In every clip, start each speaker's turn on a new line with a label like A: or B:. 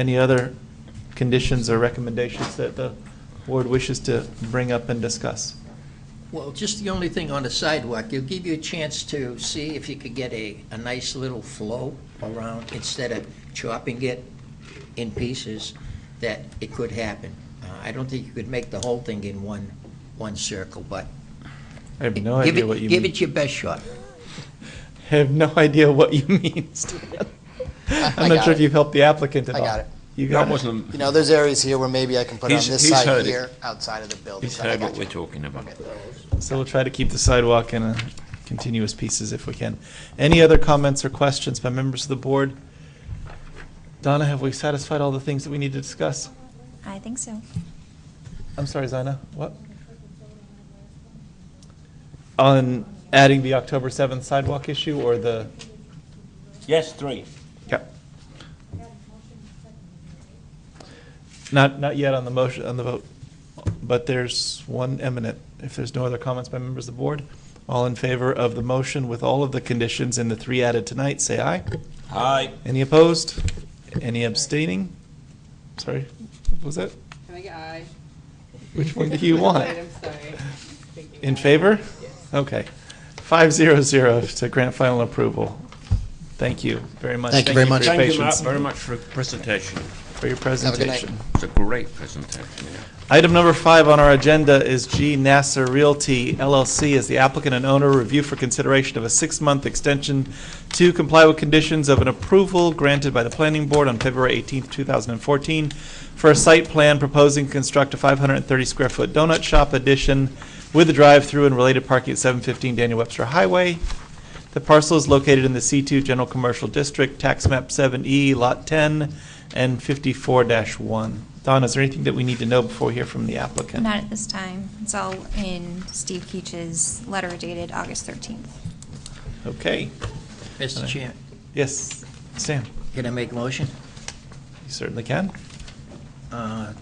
A: Any other conditions or recommendations that the board wishes to bring up and discuss?
B: Well, just the only thing on the sidewalk, it'll give you a chance to see if you could get a, a nice little flow around, instead of chopping it in pieces, that it could happen. Uh, I don't think you could make the whole thing in one, one circle, but.
A: I have no
B: give
A: idea
B: it-
A: what you
B: Give
A: mean.
B: it your best shot.
A: I have no idea what you mean, Stan. I'm not
C: got
A: sure if
C: it.
A: you've helped the applicant at
C: I
A: all.
C: got it.
A: You
D: That
A: got it?
D: wasn't,
C: You know, there's areas here where maybe I can put it on
D: He's-
C: this
D: he's heard
C: side
D: it.
C: here, outside of the building.
D: he's
C: I
D: heard
C: got
D: what we're
C: you.
D: talking about.
A: So we'll try to keep the sidewalk in a continuous pieces if we can. Any other comments or questions by members of the board? Donna, have we satisfied all the things that we need to discuss?
E: I think so.
A: I'm sorry, Zina, what? On adding the October 7th sidewalk issue or the?
F: Yes, three.
A: Yep. Not, not yet on the motion, on the vote, but there's one eminent. If there's no other comments by members of the board, all in favor of the motion with all of the conditions and the three added tonight, say aye.
F: Aye.
A: Any opposed? Any abstaining? Sorry, what was that?
G: Can I get aye?
A: Which one do you want?
G: Wait, I'm sorry. Thinking
A: In
G: aye.
A: favor?
G: Yes.
A: Okay. Five zero zero to grant final approval. Thank you very much.
C: Thank you very much.
A: for your
F: Thank you Matt,
A: patience,
F: very much for the presentation.
A: For your
C: a good night.
A: presentation.
D: It's a great presentation, yeah.
A: Item number five on our agenda is G Nasser Realty LLC as the applicant and owner review for consideration of a six-month extension to comply with conditions of an approval granted by the planning board on February 18, 2014, for a site plan proposing to construct a 530-square-foot donut shop addition with a drive-through and related parking at 715 Daniel Webster Highway. The parcel is located in the C2 General Commercial District, Tax Map 7E, Lot 10, and 54-1. Don, is there anything that we need to know before we hear from the applicant?
E: Not at this time. It's all in Steve Keach's letter dated August 13th.
A: Okay.
B: Mr. Chair,
A: Yes, Sam,
B: can I make a motion?
A: you certainly can.
B: Uh,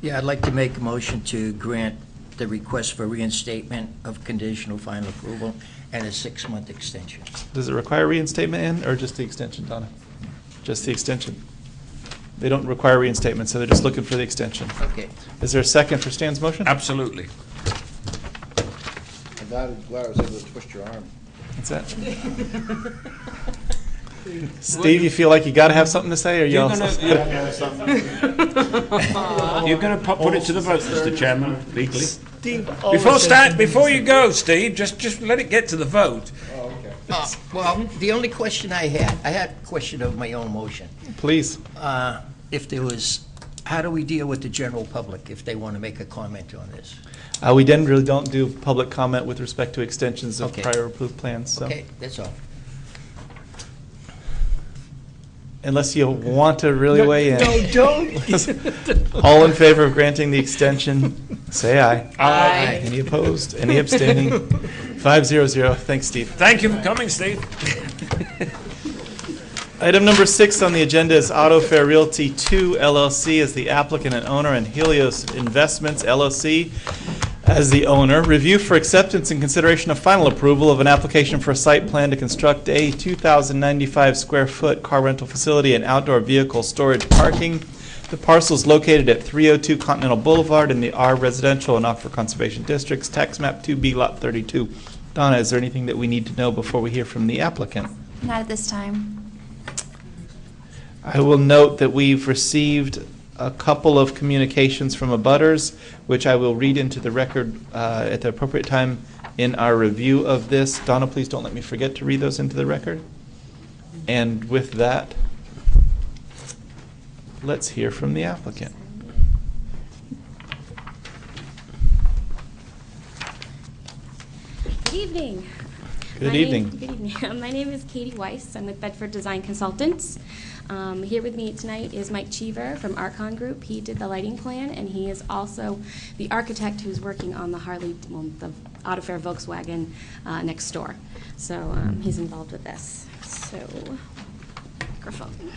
B: Yeah, I'd like to make a motion to grant the request for reinstatement of conditional final approval and a six-month extension.
A: Does it require reinstatement in, or just the extension, Donna? Just the extension. They don't require reinstatement, so they're just looking for the extension.
B: Okay.
A: Is there a second for Stan's motion?
D: Absolutely.
H: I'm glad, glad I was able to twist your arm.
A: What's that? Steve, you feel like you gotta have something to say, or you
F: You're
A: also?
F: gonna, you're- you're gonna pu- put it to the vote, Mr Chairman, legally. Before start, before you go, Steve, just, just let it get to the vote.
B: Uh, Well, the only question I had, I had a question of my own motion.
A: Please.
B: Uh, If there was, how do we deal with the general public if they want to make a comment on this?
A: Uh, we then really don't do public comment with respect to extensions of
B: Okay.
A: prior approved plans, so.
B: Okay, that's all.
A: Unless you want to really weigh in.
B: don't.
A: All in favor of granting the extension, say aye.
F: Uh,
G: Aye.
A: Any opposed? Any abstaining? Five zero zero. Thanks, Steve.
F: Thank you for coming, Steve.
A: Item number six on the agenda is Auto Fair Realty Two LLC as the applicant and owner and Helios Investments LLC as the owner. Review for acceptance and consideration of final approval of an application for a site plan to construct a 2,095 square foot car rental facility and outdoor vehicle storage parking. The parcel is located at 302 Continental Boulevard in the R Residential and Aquifer Conservation Districts, tax map 2B, lot 32. Donna, is there anything that we need to know before we hear from the applicant?
E: Not at this time.
A: I will note that we've received a couple of communications from abutters, which I will read into the record uh, at the appropriate time in our review of this. Donna, please don't let me forget to read those into the record. And with that, let's hear from the applicant.
I: Good evening.
A: Good
I: My name-
A: evening.
I: Good evening. My name is Katie Weiss. I'm with Bedford Design Consultants. Um, Here with me tonight is Mike Cheever from Archon Group. He did the lighting plan, and he is also the architect who's working on the Harley, well, the Auto Fair Volkswagen uh, next door. So um, he's involved with this. So, microphone.